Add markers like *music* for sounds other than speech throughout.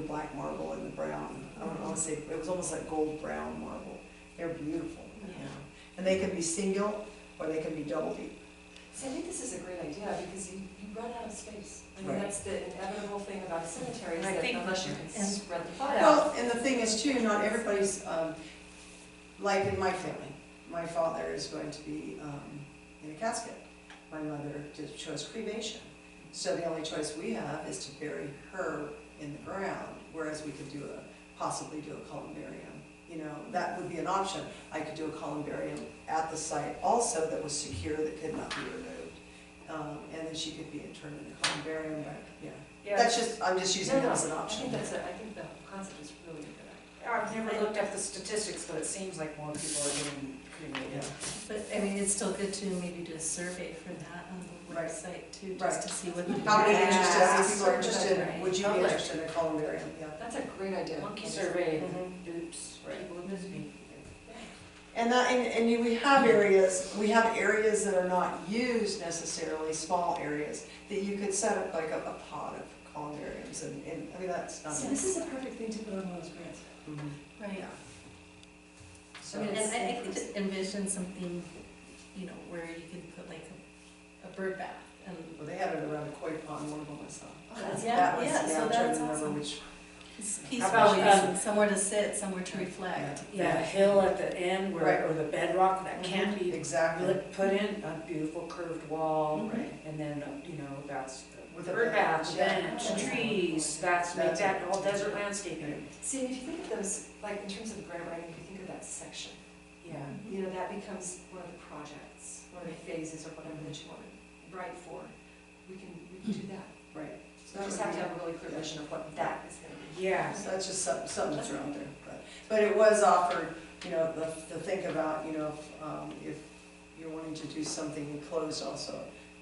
black marble and the brown. I don't want to say, it was almost like gold brown marble. They're beautiful, you know. And they can be single or they can be double deep. See, I think this is a great idea, because you, you run out of space. I mean, Right. that's the inevitable thing about cemeteries, I that think- unless you can and- spread the plot out. Well, and the thing is too, not everybody's, um, like in my family, my father is going to be, um, in a casket. My mother did- chose cremation. So the only choice we have is to bury her in the ground, whereas we could do a, possibly do a columbarium. You know, that would be an option. I could do a columbarium at the site also that was secure, that could not be removed. Um, and then she could be interred in a columbarium, but, yeah. That's just, I'm just using No, that no, as an I option. think that's a, I think the concept is really a good. I've never looked up the statistics, but it seems like more people are getting cremated. But, I mean, it's still good to maybe do a survey for that on the Right. website too, Right. just to see what. the How many interested, how many ask people are for, interested, right? would you be Public. interested in a columbarium, yeah? That's a great idea. Monkey survey, Mhm. oops, people have missed me. And that, and, and you- we have areas, we have areas that are not used necessarily, small areas, that you could set up like a, a pot of columbariums and, and, I mean, that's not. So this is a perfect thing to put on one of those grants. Mhm. Right, Yeah. I So, mean, and I, I could just envision something, you know, where you can put like a, a bird bath and. well, they had it around a koi pond, one of them I saw. That's- That was- yeah, so I'm trying that's to remember awesome. which, It's about, peaceful, um, somewhere to sit, somewhere to reflect. Yeah, a hill at the end Right. where, or the bedrock that can't be exactly, lit- put in, a beautiful curved wall, right, and then, uh, you know, that's With a bird bath, bench, bench, yeah. trees, that's, make That's it. that all desert landscaping. See, if you think of those, like, in terms of grant writing, if you think of that section, Yeah, you know, that becomes one of the projects, one of the phases or whatever that you want to write for. We can, we can do that. right. So So we that would just have be- to have a really clear vision of what that is going to be. yeah. So that's just something, something that's around there, but, but it was offered, you know, the, the think about, you know, if, um, if you're wanting to do something enclosed also,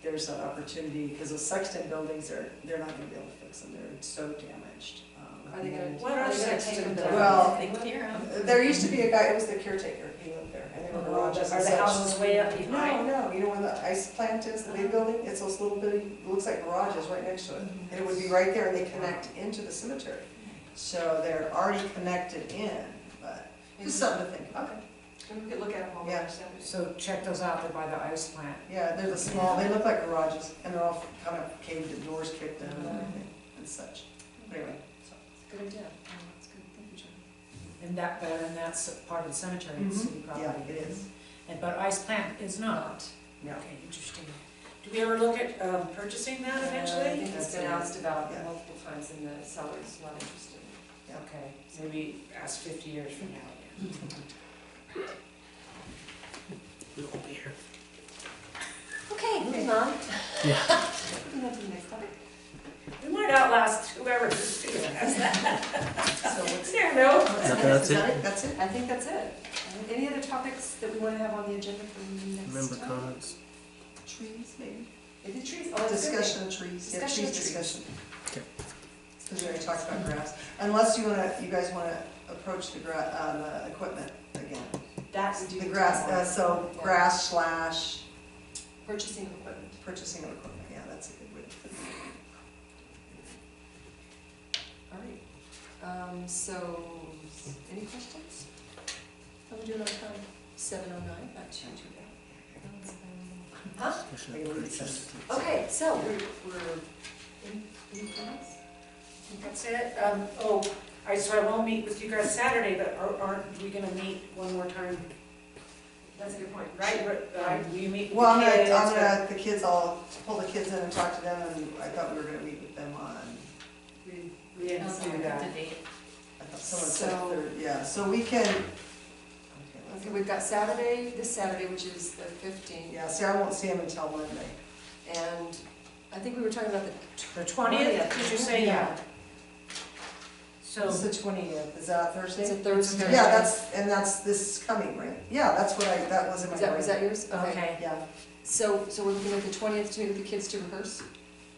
there's that opportunity, because the Sexton buildings are, they're not gonna be able to fix them, they're so damaged. um, Are they gonna, and- What are are they gonna take Sexton them doing? down? Well, They clear 'em. There used to be a guy, it was the caretaker, he lived there, and they were Are garages and the such. houses way up No, behind? no, you know where the ice plant is, the big building, it's those little bitty, looks like garages right next to it. And it would be right there and they connect into the cemetery. So they're already connected in, but just something to think about. Okay, and we could look at them all Yeah. over Saturday. So check those out, they're by the ice plant. Yeah, they're the small, they look like garages and they're all kind of caved in, doors kicked in and everything and such. But Anyway, so. Good idea. Oh, That's good, thank you, John. And that, but, and that's part of the cemetery, it's Mhm. city Yeah, property. it is. And, but ice plant is not. No. Okay, interesting. Do we ever look at um, purchasing that Uh, I eventually? think That's it's been good. asked about Yeah. multiple times and the seller's not interested. Yeah. Okay, maybe ask fifty years from now. We won't be here. Okay, moving on. Yeah. *laughs* Moving on to the next topic. We might outlast whoever *laughs* is doing that. So what's- There, no? Is that it? That's it? I think that's it. Any other topics that we want to have on the agenda for next time? Member comments? Trees, maybe? Is it trees? Oh, it's good. Discussion of trees, yeah, Discussion trees of trees. discussion. Okay. Because we already talked about grass, unless you wanna, you guys wanna approach the gra, uh, the equipment again. That we do. The grass, uh, so Yeah. grass slash Purchasing of equipment. purchasing of equipment, yeah, that's a good way to put it. All right. Um, so, s- any questions? How we doing on time? Seven oh nine, not too, too bad. Huh? Discussion Maybe of we purchase. Okay, so we're, we're, any, any comments? That's it. Um, oh, I, so I won't meet with you guys Saturday, but are- aren't we gonna meet one more time? That's a good point, Right, right, will you meet with the kids? Well, I'm gonna, I'm but- gonna, the kids, I'll pull the kids in and talk to them, and I thought we were gonna meet with them on, We- We didn't do Up to that. date. I thought someone said So- third, yeah, so we can. okay, let's- Okay, we've got Saturday, this Saturday, which is the fifteenth, Yeah, see, I won't see them until Monday. and I think we were talking about the The twentieth, did you say? Yeah. So. It's the twentieth, is that Thursday? It's a Thursday. Yeah, that's, and that's this coming, right? Yeah, that's what I, that was in my Is brain. that, was that yours? Yeah, So, so we're looking at the twentieth to meet with the kids to rehearse,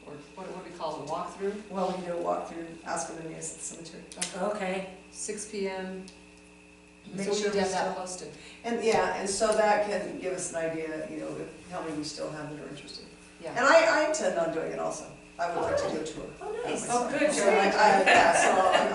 or what, what do we call it, a walkthrough? well, we can do a walkthrough, ask them to meet us at the cemetery. Okay. Six P M. Make So we sure need to we have that still- posted. And, yeah, and so that can give us an idea, you know, if, how many we still have that are interested. And Yeah. I, I intend on doing it also. I would like to do a tour. Oh, myself. Oh, good, So you're I, right. I, yeah, so I'm-